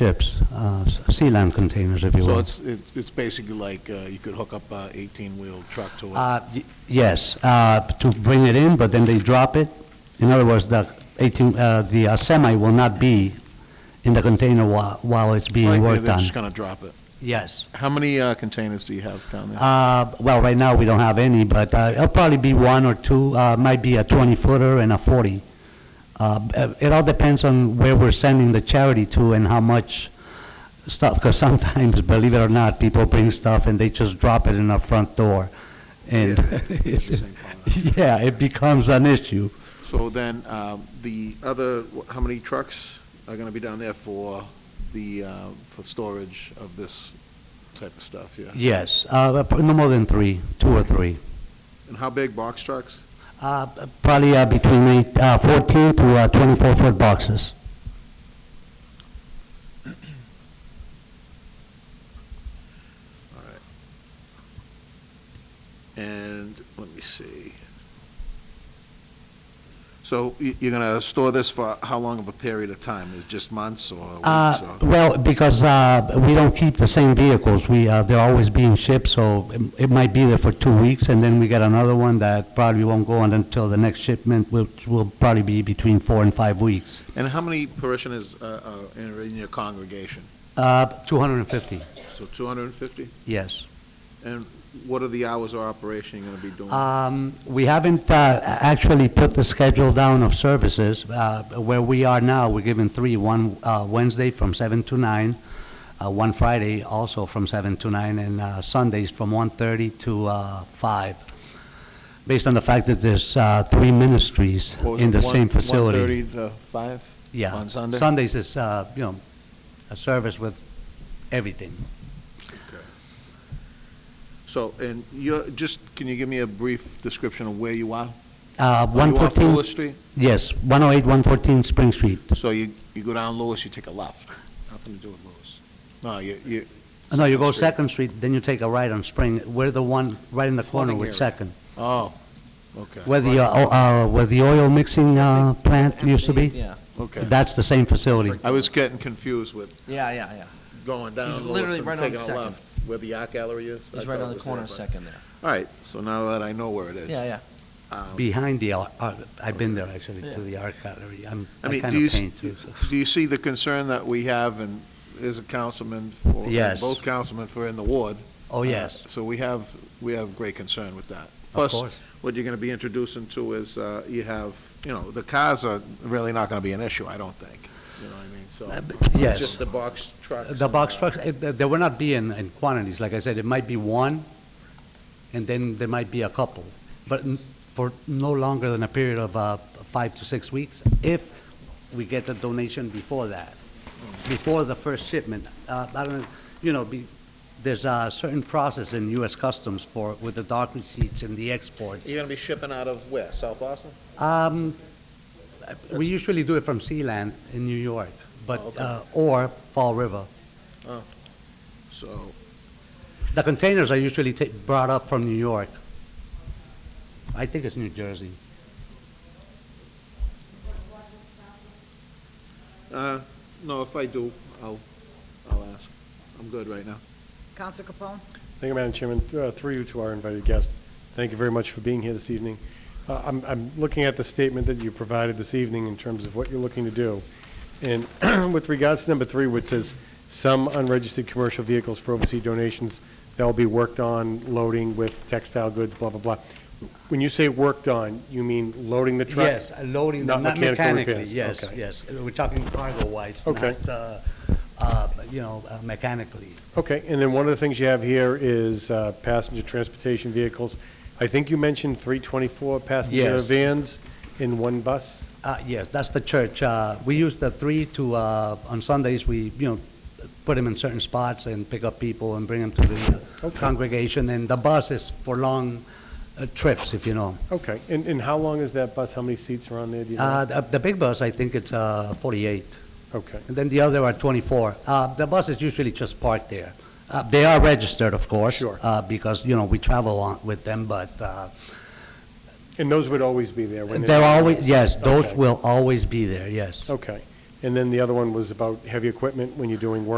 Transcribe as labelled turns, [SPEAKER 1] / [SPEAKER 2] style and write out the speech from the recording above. [SPEAKER 1] ships, uh, s- sea land containers, if you
[SPEAKER 2] So
[SPEAKER 1] will.
[SPEAKER 2] it's, it- it's basically like uh, you could hook up a 18-wheel truck to it.
[SPEAKER 1] Uh, y- Yes, uh, to bring it in, but then they drop it. In other words, the 18, uh, the uh, semi will not be in the container while while it's
[SPEAKER 2] Right,
[SPEAKER 1] being
[SPEAKER 2] yeah,
[SPEAKER 1] worked
[SPEAKER 2] They're
[SPEAKER 1] on.
[SPEAKER 2] just going to drop it.
[SPEAKER 1] Yes.
[SPEAKER 2] How many uh, containers do you have down there?
[SPEAKER 1] Uh, Well, right now, we don't have any, but uh, it'll probably be one or two, uh, might be a 20-footer and a 40. Uh, b- uh, It all depends on where we're sending the charity to and how much stuff, because sometimes, believe it or not, people bring stuff and they just drop it in our front door. And,
[SPEAKER 2] Interesting comment.
[SPEAKER 1] yeah, it becomes an issue.
[SPEAKER 2] So then, um, the other, wh- how many trucks are going to be down there for the, uh, for storage of this type of stuff, yeah?
[SPEAKER 1] Yes, uh, p- no more than three, two or three.
[SPEAKER 2] And how big, box trucks?
[SPEAKER 1] Uh, p- Probably uh, between eight- uh, 14 to 24-foot boxes.
[SPEAKER 2] All right. And, let me see. So y- you're going to store this for how long of a period of time? Is it just months or
[SPEAKER 1] Uh,
[SPEAKER 2] weeks or?
[SPEAKER 1] Well, because uh, we don't keep the same vehicles, we, uh, they're always being shipped, so it- it might be there for two weeks, and then we get another one that probably won't go on until the next shipment, which will probably be between four and five weeks.
[SPEAKER 2] And how many parishioners uh, are in in your congregation?
[SPEAKER 1] Uh, 250,
[SPEAKER 2] So 250?
[SPEAKER 1] yes.
[SPEAKER 2] And what are the hours of operation you're going to be doing?
[SPEAKER 1] Um, We haven't uh, actually put the schedule down of services. Uh, Where we are now, we're given three, one uh, Wednesday from 7 to 9, uh, one Friday also from 7 to 9, and uh, Sundays from 1:30 to uh, 5, based on the fact that there's uh, three ministries
[SPEAKER 2] Or
[SPEAKER 1] in the
[SPEAKER 2] one-
[SPEAKER 1] same facility.
[SPEAKER 2] 1:30 to 5?
[SPEAKER 1] Yeah.
[SPEAKER 2] On Sunday?
[SPEAKER 1] Sundays is, uh, you know, a service with everything.
[SPEAKER 2] Okay. So, and you're, just, can you give me a brief description of where you are?
[SPEAKER 1] Uh,
[SPEAKER 2] Are you off
[SPEAKER 1] 114
[SPEAKER 2] Lewis Street?
[SPEAKER 1] Yes, 108, 114 Spring Street.
[SPEAKER 2] So you, you go down Lewis, you take a left? Nothing to do with Lewis. No, you, you,
[SPEAKER 1] No, you go Second
[SPEAKER 2] Second
[SPEAKER 1] Street, then you take a right on Spring. We're the one right in the corner
[SPEAKER 3] Flooding
[SPEAKER 1] with
[SPEAKER 3] area.
[SPEAKER 1] Second,
[SPEAKER 2] oh, okay.
[SPEAKER 1] where the, uh, o- uh, where the oil mixing uh, plant used to be.
[SPEAKER 3] Yeah,
[SPEAKER 2] Okay.
[SPEAKER 1] That's the same facility.
[SPEAKER 2] I was getting confused with
[SPEAKER 3] yeah, yeah, yeah.
[SPEAKER 2] going
[SPEAKER 3] He's
[SPEAKER 2] down Lewis
[SPEAKER 3] literally
[SPEAKER 2] and
[SPEAKER 3] right on
[SPEAKER 2] taking a
[SPEAKER 3] Second.
[SPEAKER 2] left, where the art gallery uh, is. I
[SPEAKER 3] It's right
[SPEAKER 2] thought it
[SPEAKER 3] on the
[SPEAKER 2] was
[SPEAKER 3] corner
[SPEAKER 2] there,
[SPEAKER 3] of
[SPEAKER 2] but-
[SPEAKER 3] Second there.
[SPEAKER 2] All right, so now that I know where it is.
[SPEAKER 3] Yeah, yeah.
[SPEAKER 2] um,
[SPEAKER 1] Behind the, ar- uh, I've been there actually, to
[SPEAKER 3] Yeah.
[SPEAKER 1] the art gallery. I'm,
[SPEAKER 2] I
[SPEAKER 1] I
[SPEAKER 2] mean,
[SPEAKER 1] kind
[SPEAKER 2] do you,
[SPEAKER 1] of
[SPEAKER 2] s-
[SPEAKER 1] paint too. so.
[SPEAKER 2] do you see the concern that we have and as a councilman for, and
[SPEAKER 1] Yes.
[SPEAKER 2] both councilmen for in the ward?
[SPEAKER 1] Oh, yes,
[SPEAKER 2] Uh, So we have, we have great concern with that.
[SPEAKER 1] of
[SPEAKER 2] Plus,
[SPEAKER 1] course.
[SPEAKER 2] what you're going to be introducing to is, uh, you have, you know, the cars are really not going to be an issue, I don't think. You know what I mean? So.
[SPEAKER 1] Uh, b-
[SPEAKER 2] it's
[SPEAKER 1] yes.
[SPEAKER 2] Just the box trucks.
[SPEAKER 1] The
[SPEAKER 2] and,
[SPEAKER 1] box
[SPEAKER 2] uh,
[SPEAKER 1] trucks, it- they will not be in, in quantities. Like I said, it might be one, and then there might be a couple. But n- for no longer than a period of uh, five to six weeks, if we get the donation before that, before the first shipment. Uh, I don't know, you know, be- there's a certain process in U.S. Customs for, with the dock receipts and the exports.
[SPEAKER 2] You're going to be shipping out of where, South Boston?
[SPEAKER 1] Um, We usually do it from Sealand in New York, but,
[SPEAKER 2] Oh, okay.
[SPEAKER 1] uh, or Fall River.
[SPEAKER 2] So,
[SPEAKER 1] The containers are usually ta- brought up from New York. I think it's New Jersey.
[SPEAKER 2] uh, no, if I do, I'll, I'll ask. I'm good right now.
[SPEAKER 4] Counsel Capone?
[SPEAKER 5] Thank you, Madam Chairman. Uh, Through you to our invited guest, thank you very much for being here this evening. Uh, I'm, I'm looking at the statement that you provided this evening in terms of what you're looking to do. And with regards to number three, which says some unregistered commercial vehicles for overseas donations, that'll be worked on loading with textile goods, blah, blah, blah. When you say worked on, you mean loading the truck?
[SPEAKER 1] Yes, uh, loading them, not
[SPEAKER 5] Not mechanical
[SPEAKER 1] mechanically,
[SPEAKER 5] repairs,
[SPEAKER 1] yes,
[SPEAKER 5] okay.
[SPEAKER 1] yes. Uh, We're talking cargo-wise,
[SPEAKER 5] Okay.
[SPEAKER 1] not, uh, uh, you know, uh, mechanically.
[SPEAKER 5] Okay, and then one of the things you have here is uh, passenger transportation vehicles. I think you mentioned 324 passenger
[SPEAKER 1] Yes.
[SPEAKER 5] vans in one bus?
[SPEAKER 1] Uh, Yes, that's the church. Uh, We use the three to, uh, on Sundays, we, you know, put them in certain spots and pick up people and bring them to the uh,
[SPEAKER 5] Okay.
[SPEAKER 1] congregation. And the bus is for long uh, trips, if you know.
[SPEAKER 5] Okay, and, and how long is that bus? How many seats are on there, do you know?
[SPEAKER 1] Uh, The the big bus, I think it's uh, 48.
[SPEAKER 5] Okay,
[SPEAKER 1] And then the other are 24. Uh, The bus is usually just parked there. Uh, They are registered, of course.
[SPEAKER 5] Sure.
[SPEAKER 1] uh, Because, you know, we travel on with them, but uh,
[SPEAKER 5] and those would always be there when they're...
[SPEAKER 1] they're always, yes, those
[SPEAKER 5] Okay.
[SPEAKER 1] will always be there, yes.
[SPEAKER 5] Okay, And then the other one was about heavy equipment when you're doing work